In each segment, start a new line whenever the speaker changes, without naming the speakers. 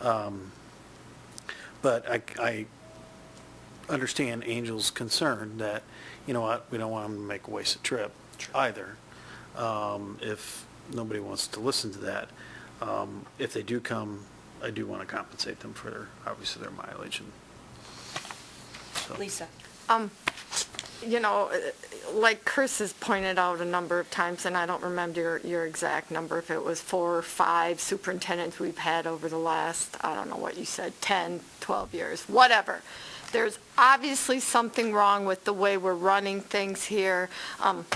Um, But I, I understand Angel's concern that, you know what, we don't want them to make a wasted trip either, um, if nobody wants to listen to that. Um, If they do come, I do want to compensate them for their, obviously their mileage and. so.
Lisa?
you know, like Chris has pointed out a number of times, and I don't remember your, your exact number, if it was four or five superintendents we've had over the last, I don't know what you said, 10, 12 years, whatever. There's obviously something wrong with the way we're running things here. Um,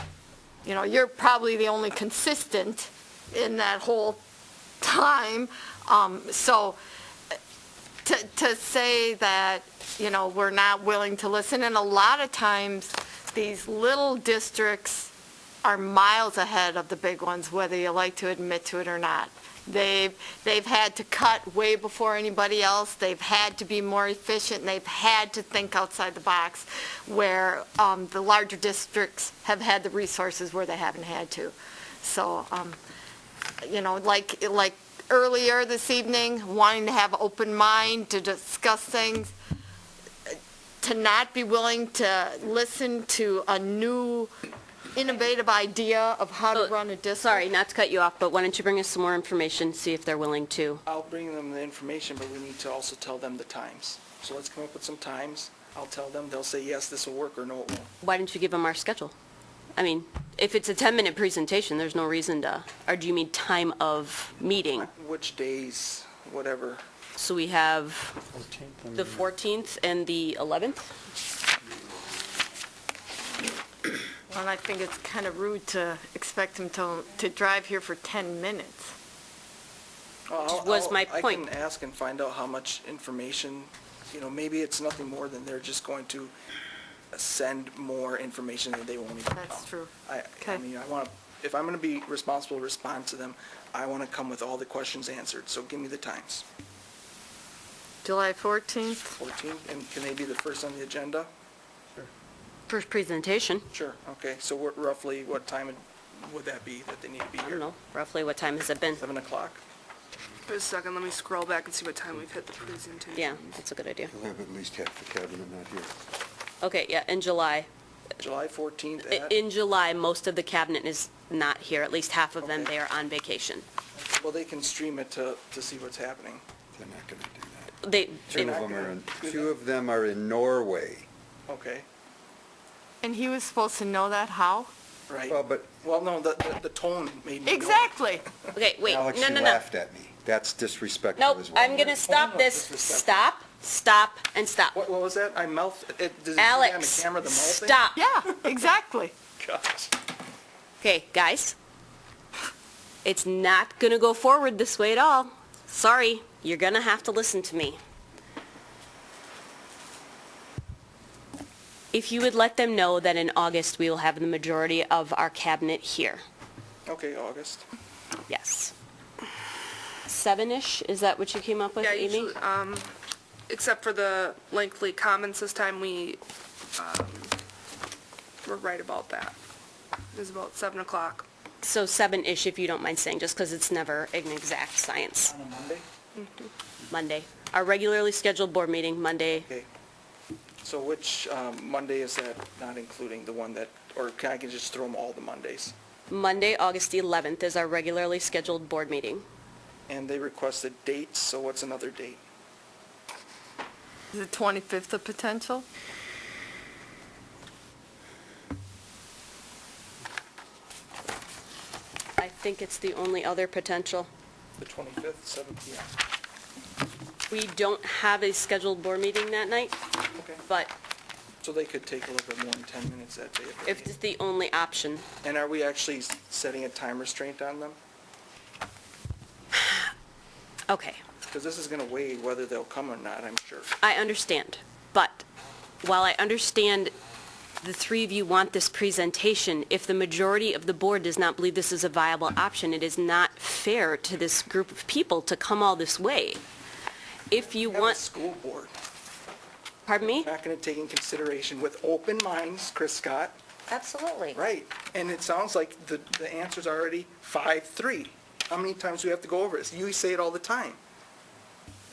You know, you're probably the only consistent in that whole time. Um, So uh, to, to say that, you know, we're not willing to listen, and a lot of times, these little districts are miles ahead of the big ones, whether you like to admit to it or not. They've, they've had to cut way before anybody else, they've had to be more efficient, and they've had to think outside the box, where um, the larger districts have had the resources where they haven't had to. So, um, you know, like, like earlier this evening, wanting to have open mind to discuss things, to not be willing to listen to a new innovative idea of how to run a district.
Sorry, not to cut you off, but why don't you bring us some more information, see if they're willing to?
I'll bring them the information, but we need to also tell them the times. So let's come up with some times. I'll tell them, they'll say, yes, this will work, or no, it won't.
Why don't you give them our schedule? I mean, if it's a 10-minute presentation, there's no reason to, or do you mean time of meeting?
Which days, whatever.
So we have
14th and-
the 14th and the 11th?
And I think it's kind of rude to expect them to, to drive here for 10 minutes.
I'll-
was
I'll-
my
I
point.
can ask and find out how much information, you know, maybe it's nothing more than they're just going to send more information that they won't even know.
That's true.
I, I
Okay.
mean, I want to, if I'm going to be responsible, to respond to them, I want to come with all the questions answered, so give me the times.
July 14th,
14, and can they be the first on the agenda?
First presentation,
Sure, okay, so what- roughly what time would that be that they need to be
I don't
here?
know, roughly what time has it been?
7 o'clock?
Wait a second, let me scroll back and see what time we've hit the presentation.
Yeah, that's a good idea.
We'll have at least half the cabinet not here.
Okay, yeah, in July.
July 14th
I-
at,
In July, most of the cabinet is not here, at least half of them,
Okay.
they are on vacation.
well, they can stream it to, to see what's happening.
They're not going to do that.
They,
They're
Two
not
of them are in,
gonna-
two of them are in Norway.
Okay,
and he was supposed to know that, how?
right.
Well, but
Well, no, the, the- the tone made me know.
Exactly.
okay, wait, no, no, no.
Alex, you laughed at me. That's disrespectful
Nope,
as well.
I'm going to stop this.
disrespectful.
Stop, stop, and stop.
What, what was that? I mouth, it, does it say on the
Alex,
camera, the mouth thing?
stop.
Yeah, exactly.
Gosh.
Okay, guys, it's not going to go forward this way at all. Sorry, you're going to have to listen to me. If you would let them know that in August, we will have the majority of our cabinet here.
Okay, August.
Yes. Seven-ish, is that what you came up with,
Yeah,
Amy?
usually, um, except for the lengthy comments this time, we, um, were right about that. It was about seven o'clock.
So seven-ish, if you don't mind saying, just because it's never an exact science.
On a Monday?
Monday. Our regularly scheduled board meeting, Monday.
Okay. So which, um, Monday is that, not including the one that, or can I can just throw them all the Mondays?
Monday, August 11th is our regularly scheduled board meeting.
And they requested dates, so what's another date?
Is it 25th of potential?
I think it's the only other potential.
The 25th, 7 PM?
We don't have a scheduled board meeting that night,
Okay.
but
So they could take a little bit more than 10 minutes that day. if they
if
need.
it's the only option.
And are we actually s- setting a time restraint on them?
Okay,
Because this is going to weigh whether they'll come or not, I'm sure.
I understand. But while I understand the three of you want this presentation, if the majority of the board does not believe this is a viable option, it is not fair to this group of people to come all this way. If you
Have a
want,
school board,
pardon me?
not going to take in consideration with open minds, Chris Scott,
Absolutely.
right? And it sounds like the, the answer's already 5-3. How many times do we have to go over this? You say it all the time.